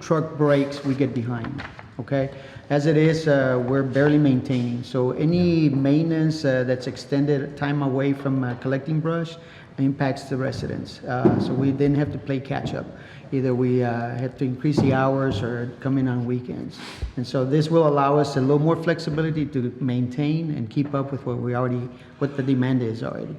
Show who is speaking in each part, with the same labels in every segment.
Speaker 1: truck breaks, we get behind, okay? As it is, uh, we're barely maintaining, so any maintenance uh, that's extended time away from uh, collecting brush impacts the residents. Uh, So we didn't have to play catch-up. Either we uh, have to increase the hours or come in on weekends. And so this will allow us a little more flexibility to maintain and keep up with what we already, what the demand is already.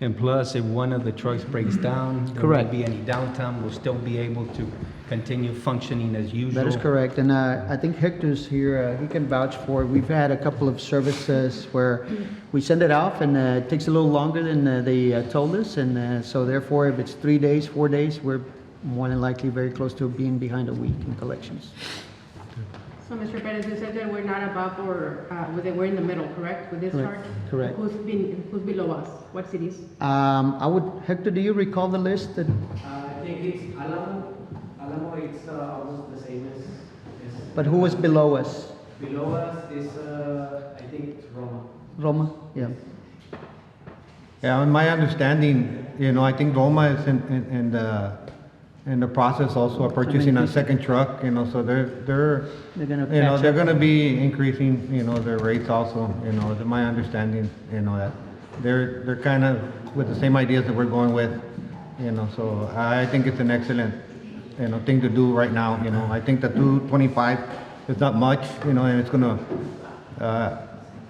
Speaker 2: And plus, if one of the trucks breaks down, there
Speaker 1: Correct.
Speaker 2: won't be any downtime, we'll still be able to continue functioning as usual.
Speaker 1: That is correct, and uh, I think Hector's here, uh, he can vouch for it. We've had a couple of services where we send it off, and uh, it takes a little longer than uh, they uh, told us, and uh, so therefore, if it's three days, four days, we're more than likely very close to being behind a week in collections.
Speaker 3: So, Mr. Perez, you said that we're not above or, uh, with it- we're in the middle, correct, with this
Speaker 1: Correct,
Speaker 3: chart?
Speaker 1: correct.
Speaker 3: Who's been, who's below us? What cities?
Speaker 1: Um, I would, Hector, do you recall the list that,
Speaker 4: Uh, I think it's Alamo. Alamo, it's uh, almost the same as, as
Speaker 1: but who was below us?
Speaker 4: below us is, uh, I think it's Roma.
Speaker 1: Roma? Yeah,
Speaker 5: Yeah, in my understanding, you know, I think Roma is in, in, in the, in the process also of purchasing a second truck, you know, so they're, they're,
Speaker 1: they're gonna
Speaker 5: you know,
Speaker 1: catch
Speaker 5: they're
Speaker 1: up.
Speaker 5: gonna be increasing, you know, their rates also, you know, to my understanding, you know, that they're, they're kind of with the same ideas that we're going with, you know, so I think it's an excellent, you know, thing to do right now, you know, I think the two twenty-five is not much, you know, and it's gonna, uh,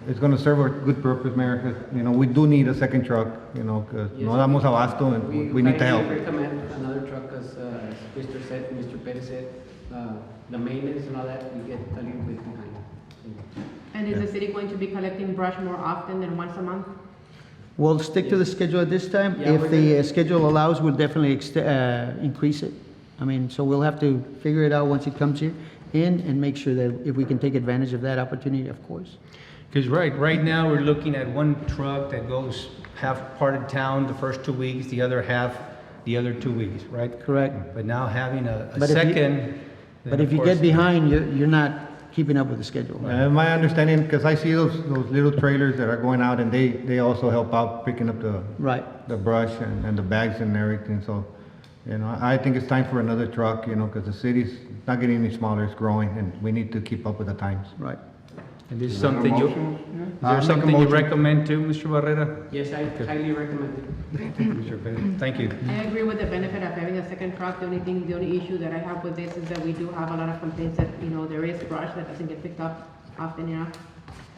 Speaker 5: it's gonna serve a good purpose, Mayor, 'cause, you know, we do need a second truck, you know, 'cause no damos abasto and we- we need to
Speaker 4: highly
Speaker 5: help.
Speaker 4: recommend another truck, as, uh, as Mr. said, Mr. Perez said, uh, the maintenance and all that, we get a little bit behind.
Speaker 3: And is the city going to be collecting brush more often than once a month?
Speaker 1: We'll stick to the schedule at this time.
Speaker 4: Yeah,
Speaker 1: If
Speaker 4: we're
Speaker 1: the
Speaker 4: gonna-
Speaker 1: uh, schedule allows, we'll definitely ext- uh, increase it. I mean, so we'll have to figure it out once it comes here in and make sure that if we can take advantage of that opportunity, of course.
Speaker 2: Because right, right now, we're looking at one truck that goes half part of town the first two weeks, the other half the other two weeks, right?
Speaker 1: Correct.
Speaker 2: But now having a, a
Speaker 1: But if you-
Speaker 2: second. then
Speaker 1: But if
Speaker 2: of
Speaker 1: you
Speaker 2: course-
Speaker 1: get behind, you're, you're not keeping up with the schedule.
Speaker 5: Uh, my understanding, because I see those, those little trailers that are going out and they, they also help out picking up the,
Speaker 1: Right.
Speaker 5: the brush and, and the bags and everything, so, you know, I think it's time for another truck, you know, because the city's not getting any smaller, it's growing, and we need to keep up with the times.
Speaker 1: Right.
Speaker 2: And this is something you, is
Speaker 5: I'll
Speaker 2: there
Speaker 5: make a
Speaker 2: something you
Speaker 5: motion.
Speaker 2: recommend too, Mr. Barrera?
Speaker 4: Yes, I highly recommend it.
Speaker 2: Mr. Perez, Thank you.
Speaker 1: Mm.
Speaker 3: I agree with the benefit of having a second truck. The only thing, the only issue that I have with this is that we do have a lot of complaints that, you know, there is brush that doesn't get picked up often enough.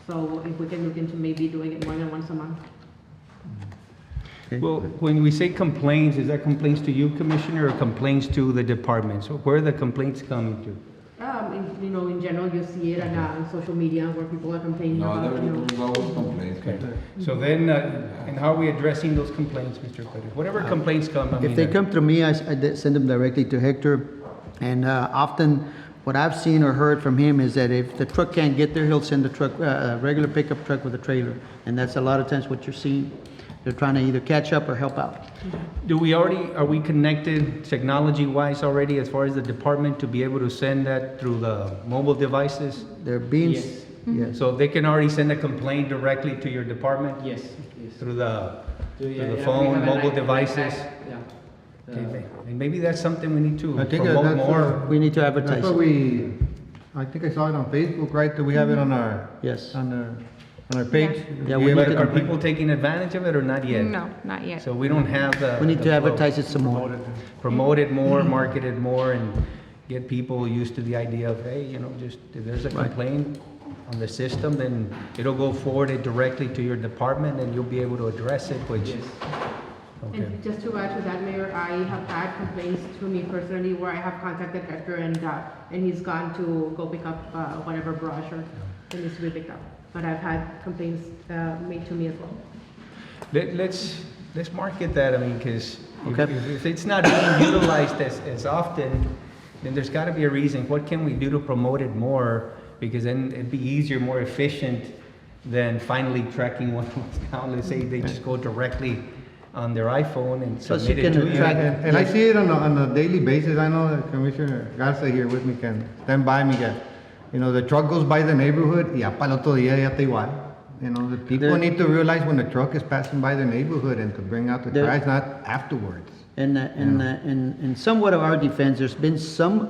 Speaker 3: So if we can look into maybe doing it more than once a month.
Speaker 2: Well, when we say complaints, is that complaints to you, Commissioner, or complaints to the department? So where are the complaints coming to?
Speaker 3: Um, in- you know, in general, you see it on, uh, on social media where people are complaining
Speaker 6: No,
Speaker 3: about,
Speaker 6: there
Speaker 3: you know.
Speaker 6: is always complaints.
Speaker 2: Okay, so then, uh, and how are we addressing those complaints, Mr. Perez? Whatever complaints come, I mean.
Speaker 1: If they
Speaker 2: uh,
Speaker 1: come through me, I, s- I di- send them directly to Hector. And uh, often, what I've seen or heard from him is that if the truck can't get there, he'll send a truck, uh, a regular pickup truck with a trailer. And that's a lot of times what you're seeing. They're trying to either catch up or help out.
Speaker 2: Do we already, are we connected technology-wise already as far as the department to be able to send that through the mobile devices?
Speaker 1: They're being, s-
Speaker 4: Yes.
Speaker 5: Mm-hmm.
Speaker 1: yes,
Speaker 2: So they can already send a complaint directly to your department
Speaker 4: Yes, yes.
Speaker 2: through the,
Speaker 4: Do
Speaker 2: through
Speaker 4: you- yeah,
Speaker 2: the
Speaker 4: we have
Speaker 2: phone,
Speaker 4: an
Speaker 2: mobile
Speaker 4: iPad,
Speaker 2: devices?
Speaker 4: Yeah. Uh,
Speaker 2: Okay, And maybe that's something we need to
Speaker 5: I think
Speaker 2: promote
Speaker 5: that's,
Speaker 2: more.
Speaker 5: uh,
Speaker 1: we need to
Speaker 5: that's
Speaker 1: advertise,
Speaker 5: what we, I think I saw it on Facebook, right, that we have it on our,
Speaker 1: yes.
Speaker 5: on our, on our page?
Speaker 1: Yeah, we
Speaker 2: But
Speaker 1: need
Speaker 2: are
Speaker 1: to-
Speaker 2: people taking advantage of it or not yet?
Speaker 7: No, not yet.
Speaker 2: So we don't have the.
Speaker 1: We need
Speaker 2: the
Speaker 1: to
Speaker 2: flow.
Speaker 1: advertise Mm-hmm. it some more.
Speaker 2: Promote it more, market it more, and get people used to the idea of, hey, you know, just, if there's a
Speaker 1: Right.
Speaker 2: complaint on the system, then it'll go forwarded directly to your department and you'll be able to address it, which,
Speaker 4: Yes.
Speaker 2: okay.
Speaker 3: And just to add to that, Mayor, I have had complaints to me personally where I have contacted Hector and, uh, and he's gone to go pick up, uh, whatever brush or that needs to be picked up. But I've had complaints, uh, made to me as well.
Speaker 2: Let, let's, let's market that, I mean, because if,
Speaker 1: Okay.
Speaker 2: if- if it's not being utilized as, as often, then there's gotta be a reason, what can we do to promote it more? Because then it'd be easier, more efficient than finally tracking one down, let's say they just go directly on their iPhone and
Speaker 1: Plus you
Speaker 2: submit it
Speaker 1: can
Speaker 2: to you.
Speaker 1: track-
Speaker 5: And, and I see it on a, on a daily basis, I know that Commissioner Garza here with me can stand by me, that, you know, the truck goes by the neighborhood, y ya pa'l otro día ya está igual. You know, the people
Speaker 1: There-
Speaker 5: need to realize when the truck is passing by the neighborhood and to bring out the
Speaker 1: There-
Speaker 5: trash, not afterwards.
Speaker 1: And, uh, and, uh, and and somewhat of our defense, there's been some